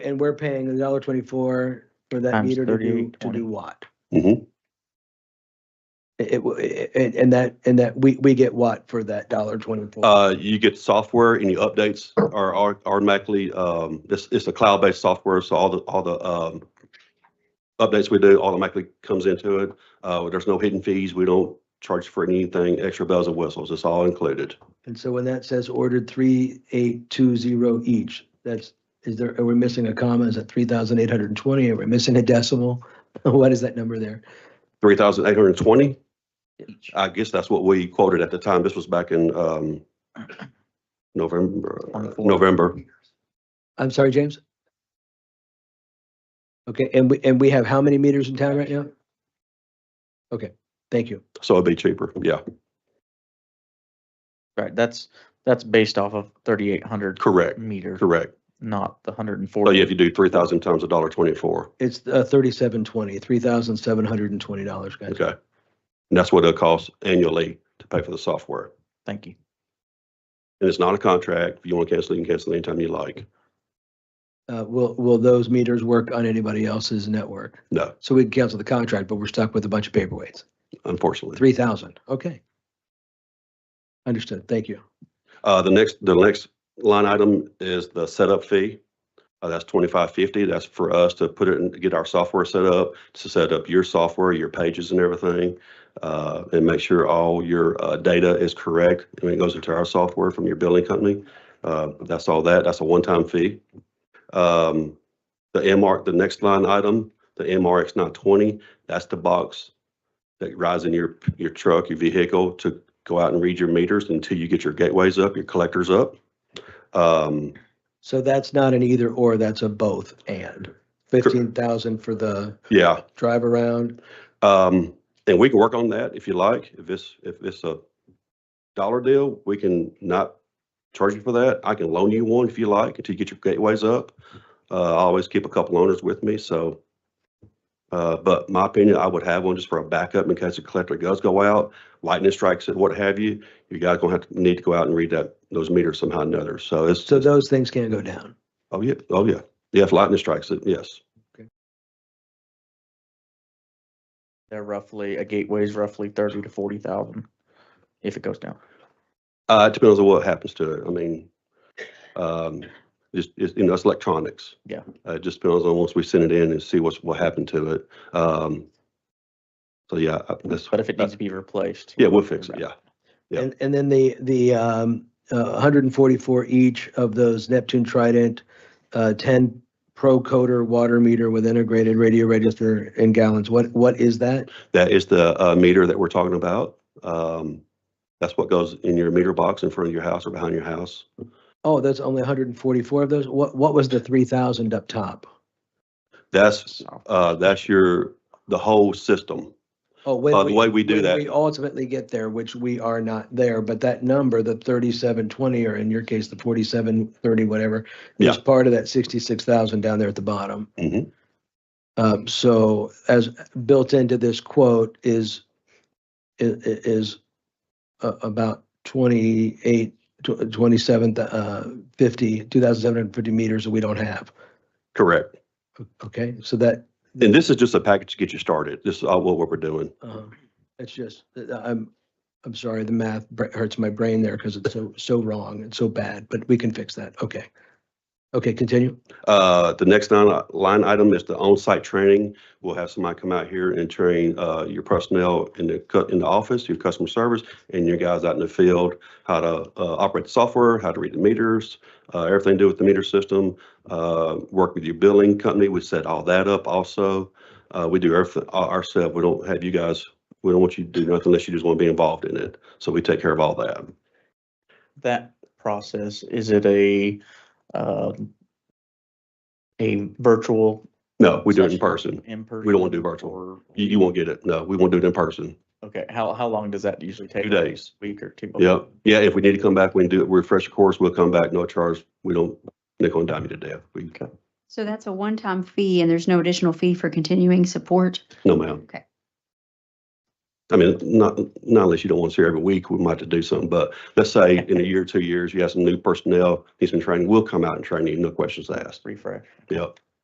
and we're paying a dollar twenty-four for that Times meter to do, to 38.20. do what? Mhm. It, it, wa- it- and, and that, and that, we, we get what for that dollar twenty-four? Uh, you get software and your updates are au- automatically, um, it's, it's a cloud-based software, so all the, all the, um, updates we do automatically comes into it. Uh, there's no hidden fees. We don't charge for anything, extra bells and whistles. It's all included. And so when that says ordered three eight two zero each, that's, is there, are we missing a comma? Is it three thousand eight hundred and twenty? Are we missing a decimal? What is that number there? Three thousand eight hundred and twenty? I guess that's what we quoted at the time. This was back in, um, November, uh, November. I'm sorry, James? Okay, and we, and we have how many meters in town right now? Okay, thank you. So it'd be cheaper. Yeah, Right, that's, that's based off of thirty-eight hundred correct, meter, correct. not the hundred and So forty. Oh, yeah, if you do three thousand times a dollar twenty-four, It's uh, thirty-seven twenty, three thousand seven hundred and twenty dollars, guys. okay. And that's what it'll cost annually to pay for the software. Thank you. And it's not a contract. If you want to cancel, you can cancel anytime you like. Uh, will, will those meters work on anybody else's network? No, So we can cancel the contract, but we're stuck with a bunch of paperweights. unfortunately. Three thousand, okay. Understood, thank you. Uh, the next, the next line item is the setup fee. Uh, that's twenty-five fifty. That's for us to put it and get our software set up, to set up your software, your pages and everything. Uh, and make sure all your, uh, data is correct. and it goes into our software from your billing company. Uh, that's all that. That's a one-time fee. Um, the MR, the next line item, the MRX nine twenty, that's the box that rides in your, your truck, your vehicle to go out and read your meters until you get your gateways up, your collectors up. Um, So that's not an either or, that's a both and. Fifteen thousand for the yeah, drive around, um, and we can work on that if you like. If it's, if it's a dollar deal, we can not charge you for that. I can loan you one if you like until you get your gateways up. Uh, I always keep a couple owners with me, so. Uh, but my opinion, I would have one just for a backup in case the collector does go out, lightning strikes it, what have you. You guys gonna have to, need to go out and read that, those meters somehow or another. So it's. so those things can go down. Oh, yeah, oh, yeah. Yeah, if lightning strikes it, yes. They're roughly, a gateway's roughly thirty to forty thousand if it goes down. Uh, it depends on what happens to it. I mean, um, just, it's, you know, it's electronics. Yeah. Uh, it just depends on once we send it in and see what's, what happened to it. Um, so yeah, I- that's, But if it needs that's- to be replaced. yeah, we'll fix it, yeah. Yeah. And, and then the, the, um, uh, hundred and forty-four each of those Neptune Trident, uh, ten pro coder water meter with integrated radio register and gallons. What, what is that? That is the, uh, meter that we're talking about. Um, that's what goes in your meter box in front of your house or behind your house. Oh, that's only hundred and forty-four of those? What, what was the three thousand up top? That's, So, uh, that's your, the whole system. Oh, when Uh, the we- way we do when that. We ultimately get there, which we are not there, but that number, the thirty-seven twenty, or in your case, the forty-seven thirty, whatever, is part of that sixty-six thousand down there at the bottom. Mhm. Um, so as built into this quote is, i- i- is a- about twenty-eight, tw- twenty-seven, uh, fifty, two thousand seven hundred fifty meters that we don't have. Correct. Okay, so that, And this is just a package to get you started. This is all what we're doing. um, it's just, uh, I'm, I'm sorry, the math br- hurts my brain there because it's so, so wrong and so bad, but we can fix that. Okay. Okay, continue. Uh, the next line, line item is the on-site training. We'll have somebody come out here and train, uh, your personnel in the, cu- in the office, your customer service, and your guys out in the field, how to, uh, operate the software, how to read the meters, uh, everything to do with the meter system, uh, work with your billing company. We set all that up also. Uh, we do everything our- ourselves. We don't have you guys, we don't want you to do nothing unless you just want to be involved in it. So we take care of all that. That process, is it a, um, a virtual? No, we do it in session? person. In person? We don't wanna do virtual. or- You, you won't get it. No, we won't do it in person. Okay, how, how long does that usually take? Two days. Week or two? Yeah, yeah, if we need to come back, we can do it, refresh the course, we'll come back, no charge, we don't nickel and dime you to death, we, So that's a one-time fee and there's no additional fee for continuing support? no ma'am. I mean, not, not unless you don't want us here every week, we might have to do something, but let's say in a year, two years, you have some new personnel, he's been training, we'll come out and train you, no questions asked. refresh. Yep.